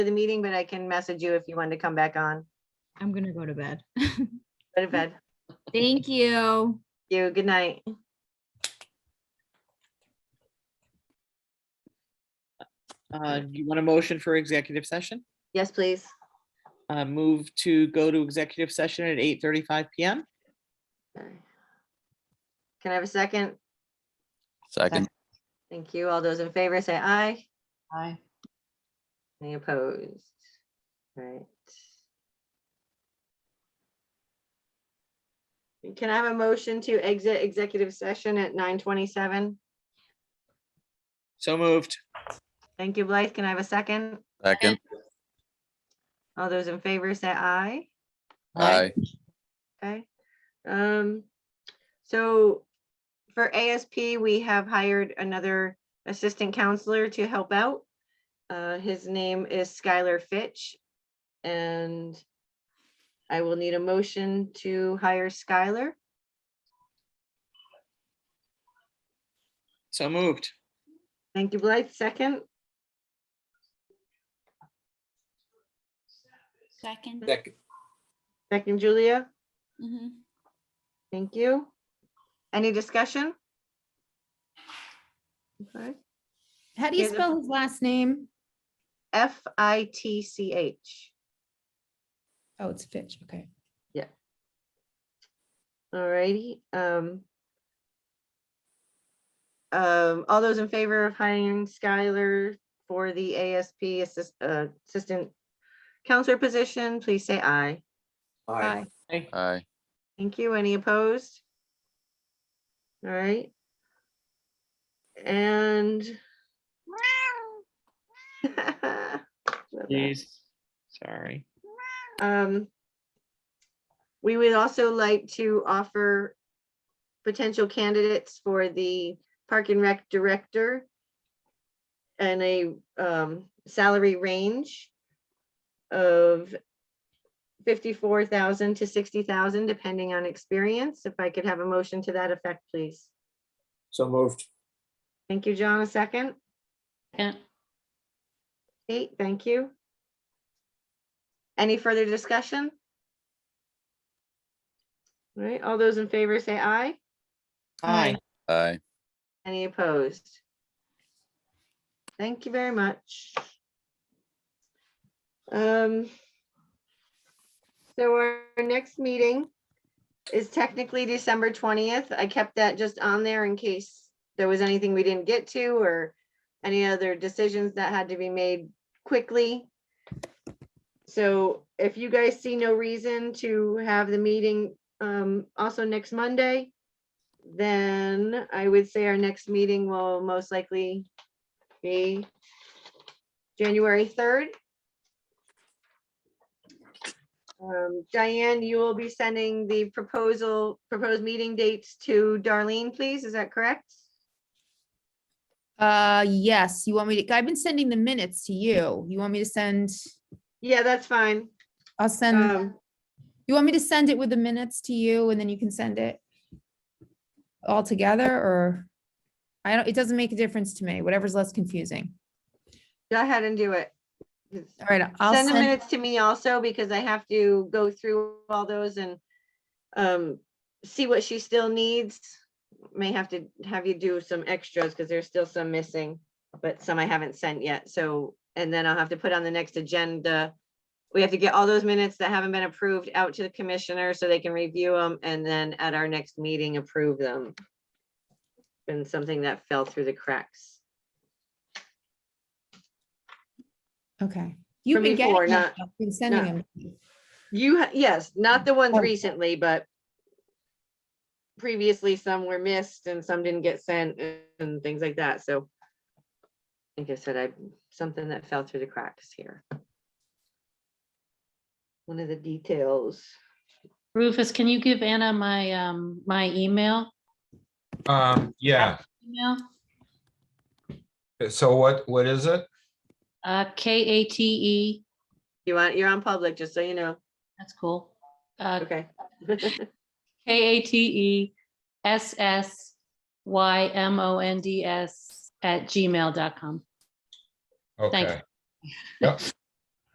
to the meeting, but I can message you if you want to come back on. I'm gonna go to bed. Go to bed. Thank you. You, good night. Uh, you want a motion for executive session? Yes, please. Uh, move to go to executive session at eight thirty-five PM? Can I have a second? Second, Thank you. All those in favor say aye. Aye. Any opposed? Right. Can I have a motion to exit executive session at nine twenty-seven? So moved. Thank you, Blythe. Can I have a second? second, All those in favor say aye. aye, Okay. Um, so for ASP, we have hired another assistant counselor to help out. Uh, his name is Skylar Fitch. And I will need a motion to hire Skylar. So moved. Thank you, Blythe. Second, Second. Second, second Julia. Mhm. Thank you. Any discussion? Okay. How do you Yeah, the- spell his last name? F I T C H. Oh, it's Fitch, okay. Alrighty, um. Um, all those in favor of hiring Skylar for the ASP assist, uh, assistant counselor position, please say aye. aye. aye, Thank you. Any opposed? Alright. And. Love that. Please. Sorry. Um, we would also like to offer potential candidates for the Park and Rec Director and a, um, salary range of fifty-four thousand to sixty thousand, depending on experience. If I could have a motion to that effect, please. So moved. Thank you, John. A second? Yeah. Kate, thank you. Any further discussion? All right, all those in favor say aye. Aye. aye. Any opposed? Thank you very much. Um. So our our next meeting is technically December twentieth. I kept that just on there in case there was anything we didn't get to or any other decisions that had to be made quickly. So if you guys see no reason to have the meeting um also next Monday, then I would say our next meeting will most likely be January third. Um, Diane, you will be sending the proposal, proposed meeting dates to Darlene, please, is that correct? Uh, yes, you want me to, I've been sending the minutes to you. You want me to send, Yeah, that's fine. I'll send, Um, you want me to send it with the minutes to you and then you can send it all together or? I don't, it doesn't make a difference to me, whatever's less confusing. Go ahead and do it. All right, I'll Send the send, minutes to me also because I have to go through all those and um, see what she still needs. May have to have you do some extras because there's still some missing, but some I haven't sent yet. So, and then I'll have to put on the next agenda. We have to get all those minutes that haven't been approved out to the commissioner so they can review them and then at our next meeting, approve them. Been something that fell through the cracks okay. You've from been getting before, them, not- I've been sending not- them. You, ha- yes, not the ones Okay. recently, but previously some were missed and some didn't get sent and- and things like that, so. Like I said, I, something that fell through the cracks here. One of the details. Rufus, can you give Anna my, um, my email? Um, yeah, Email, so what, what is it? uh, K A T E, You want, you're on public, just so you know, that's cool. Uh, okay. K A T E S S Y M O N D S at gmail.com. Okay. Yep,